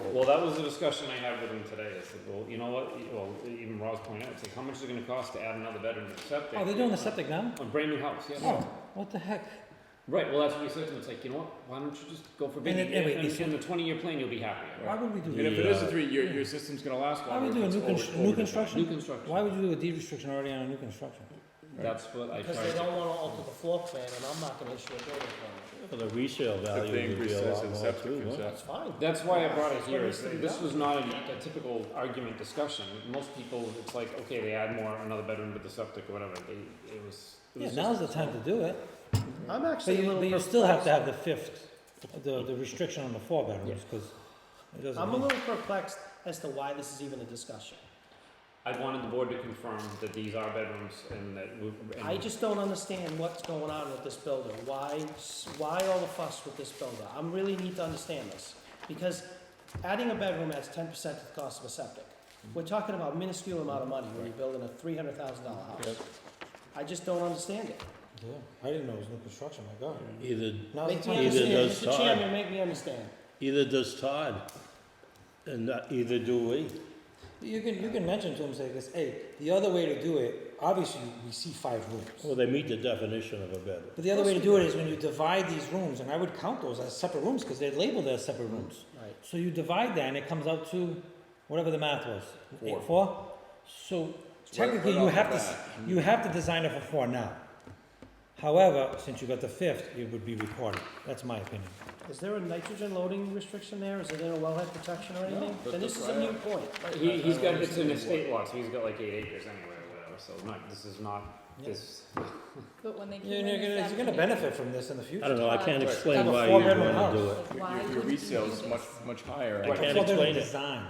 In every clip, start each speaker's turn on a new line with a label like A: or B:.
A: well, that was the discussion I had with him today, I said, well, you know what, E, well, even Ross pointed out, it's like, how much is it gonna cost to add another bedroom to the septic?
B: Oh, they're doing the septic now?
A: On brand new house, yeah.
B: Oh, what the heck?
A: Right, well, that's what he said to me, it's like, you know what, why don't you just go for big,
B: And
A: and,
B: it- and wait, it's-
A: in the twenty-year plan, you'll be happier.
B: Why would we do
C: And if it
B: that?
C: is a three, your, your system's gonna last
B: Why
C: longer.
B: would we do a
C: if
B: new,
C: it's
B: con-
C: older-
B: new
C: older than-
A: New
B: construction?
A: construction.
B: Why would you do a deed restriction already on a new construction?
A: That's what I
D: Because they
A: tried,
D: don't wanna alter the floor plan, and I'm not gonna issue a building permit,
E: Well, the resale
C: If they
E: value would
C: increase
E: be a
C: size
E: lot
C: of the
E: more
C: septic
E: too,
C: and
E: huh?
C: stuff.
D: that's fine.
A: that's why I brought it
D: That's what
A: here,
D: he's
A: is that
D: saying
A: this
D: now.
A: was not a a typical argument discussion, most people, it's like, okay, they add more, another bedroom to the septic or whatever, they, it was. it
B: Yeah,
A: was
B: now's
A: just-
B: the time to do it,
D: I'm
B: but
D: actually a
B: you,
D: little.
B: but you
D: perplexed.
B: still have to have the fifth, the, the restriction on the four bedrooms,
A: Yeah.
B: because it doesn't.
D: I'm a
B: mean-
D: little perplexed as to why this is even a discussion.
A: I wanted the board to confirm that these are bedrooms and that we. and-
D: I just don't understand what's going on with this builder. Why, s- why all the fuss with this builder? I really need to understand this. Because adding a bedroom adds ten percent to the cost of a septic.
E: Mm-hmm.
D: We're talking about minuscule amount of money when you're building a three hundred thousand dollar house. I just don't understand it.
B: Yeah, I didn't know it was new construction, my god.
E: Either,
B: Now's the
D: Make me
B: time.
E: Either
D: understand,
E: does
D: Mr.
E: Todd.
D: Chairman, make me understand.
E: either does Todd, and not- either do we.
B: You can, you can mention to them, say, this, hey, the other way to do it, obviously, we see five
E: Well,
B: rooms.
E: they meet the definition of a bedroom.
B: But the other way to do it is when you divide these rooms, and I would count those as separate rooms, because they're labeled as separate rooms.
D: Right.
B: So you divide that, and it comes out to whatever the math was.
C: Four.
B: Eight, four? So
C: It's right-
B: technically,
C: right
B: you
C: off the
B: have to,
C: bat.
B: s- you have to design it for four now. However, since you got the fifth, it would be recorded. That's my opinion.
D: Is there a nitrogen loading restriction there? Is there a wellhead protection or anything?
C: but
D: Then this is
C: that's
D: a
C: why
D: new point.
A: He,
C: I- I
A: he's
C: don't
A: got, it's an
C: understand
A: estate lot, so he's got like eight acres anyway or whatever, so not, this is not, this,
F: But when they came
B: You're
F: in
B: you're
F: this
B: gonna, you're gonna
F: afternoon,
B: benefit from this in the
E: I
B: future.
E: don't know, I can't
C: Right.
E: explain
B: Have a
E: why you
B: four-bedroom
E: wanna
B: house.
E: do it.
F: like, why
C: Your, your
F: wouldn't you do
C: resale's much,
F: this?
C: much higher.
E: I can't
B: Before they
E: explain it.
B: Design.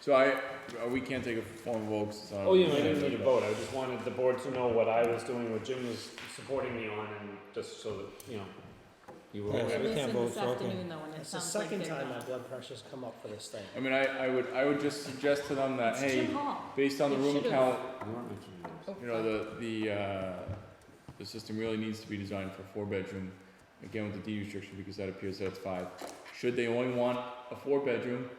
C: So I, uh, we can't take a formal vote, 'cause it's uh, not.
A: oh, you know, I didn't need a vote, I just wanted the board to know what I was doing, what Jim was supporting me on, and just so that, you know, you were.
B: Yeah,
A: aware.
B: so we can't
F: Listen
B: vote,
F: this
B: so okay.
F: afternoon, though, and it
D: It's the
F: sounds like
D: second
F: they're
D: time my
F: not.
D: blood pressure's come up for this thing.
C: I mean, I, I would, I would just suggest to them that,
F: It's
C: hey,
F: Jim Hall.
C: based on the
F: They
C: room
F: should've-
C: count,
A: You weren't mentioning those.
C: you know, the, the, uh, the system really needs to be designed for four bedroom, again with the D restriction, because that appears that it's five. Should they only want a four bedroom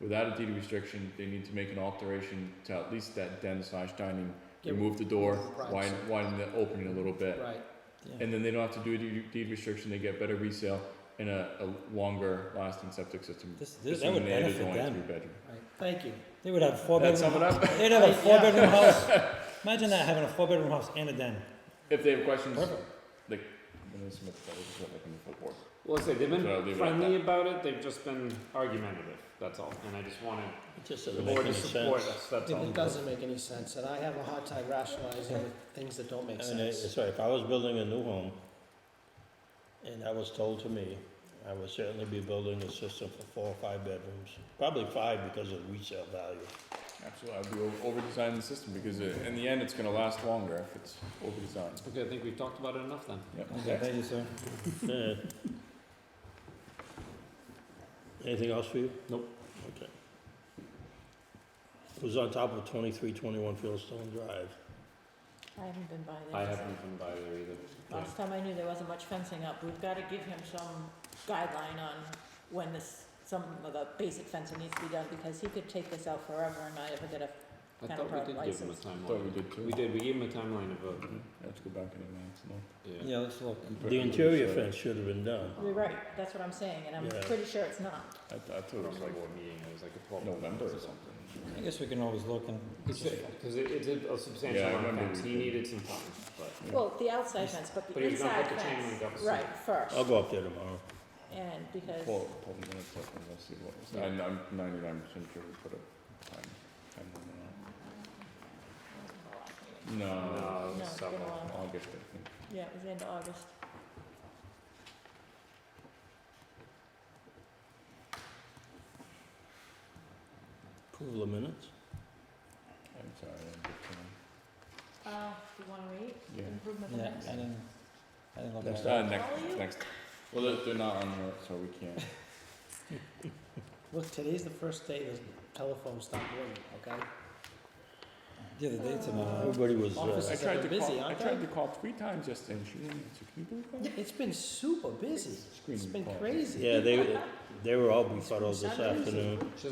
C: without a deed restriction, they need to make an alteration to at least that den slash dining,
D: Get-
C: remove the door,
D: Right.
C: widen, widen the opening a little bit.
D: Right.
B: Yeah.
C: And then they don't have to do a deed- deed restriction, they get better resale and a, a longer lasting septic system.
B: This- this- that
C: assuming
B: would
C: they added
B: benefit
C: only
B: them.
C: three bedroom.
D: Right, thank you.
B: They would have four
C: That
B: bedroom.
C: sum it up?
B: They'd have a
D: Yeah.
B: four bedroom house. Imagine that having a four bedroom house and a den.
C: If they have questions,
B: Perfect.
C: like, when they submit the, just submit the full board.
A: Well, I say, they've
C: So I'll leave it
A: been
C: at
A: friendly about it, they've just been argumentative, that's all, and I just wanted
E: It just
A: the
E: doesn't make
A: board
E: any
A: to support
E: sense.
A: us, that's all.
C: um,
D: It doesn't make any sense, and I have a hard time rationalizing with things that don't make
E: I mean,
D: sense.
E: it's like, if I was building a new home, and that was told to me, I would certainly be building a system for four or five bedrooms, probably five because of resale value.
C: Absolutely, I'd be over- over-designing the system because it, in the end, it's gonna last longer if it's over-designed.
A: Okay, I think we've talked about it enough then.
C: Yep.
B: thank you, sir.
E: Yeah. Anything else for you?
A: Nope.
E: Okay. It was on top of twenty-three twenty-one Fieldstone Drive.
F: I haven't been by there.
A: I haven't been by there either.
F: Last time I knew, there wasn't much fencing up. We've gotta give him some guideline on when this, some of the basic fencing needs to be done, because he could take this out forever and not ever get a,
A: I
F: Kind of
A: thought we did
F: private
A: give him a
F: license.
A: timeline.
C: Thought we did too. Mm-hmm.
A: We did, we gave him a timeline of a,
C: I have to go back in advance, no?
A: yeah.
B: Yeah, let's look.
E: The interior fence should have been done.
F: you're right, that's what I'm saying, and Oh, I'm
E: Yeah.
F: pretty sure it's not.
C: I, th- I
A: It
C: thought it was
A: was
C: like
A: board meeting, it was like a twelve.
C: November or something.
B: I guess we can always look and.
A: Because it, it's a- a substantial
C: Yeah, I
A: amount of
C: remember
A: things,
C: we
A: he
C: did.
A: needed some time, but.
F: Well, the outside fence, but
A: But
F: the
A: he was gonna
F: inside
A: put the chain link up
F: fence,
A: soon.
F: right, first,
E: I'll go up there tomorrow.
F: and because.
C: Pull, pull the minutes up and we'll see what was, I'm, I'm ninety-nine percent sure we put a time, time limit on it.
A: No,
F: No,
A: it was
F: it's been a
A: several.
F: while.
C: No, August, I think.
F: Yeah, it was the end of August.
E: Approval of minutes?
C: I'm sorry, I didn't get to
F: Uh, do you wanna wait?
C: Yeah.
F: Improvement
B: Yeah,
F: next?
B: I didn't, I didn't look at
C: them. Next,
B: that.
C: uh,
F: Follow you?
C: next, next. Well, they're, they're not on here, so we can't.
D: Look, today's the first day the telephone stopped working, okay?
B: Yeah, the dates are not.
E: Everybody was,
D: Office
E: uh,
C: I
D: Because
C: tried
D: they've
C: to
D: been busy,
C: call, I
D: aren't
C: tried
D: they?
C: to call three times yesterday and she didn't answer, can you believe that?
D: It's been super busy. It's
C: Screening
D: been
C: call.
D: crazy.
E: yeah, they, they were all befuddled this
D: Sundays.
E: afternoon.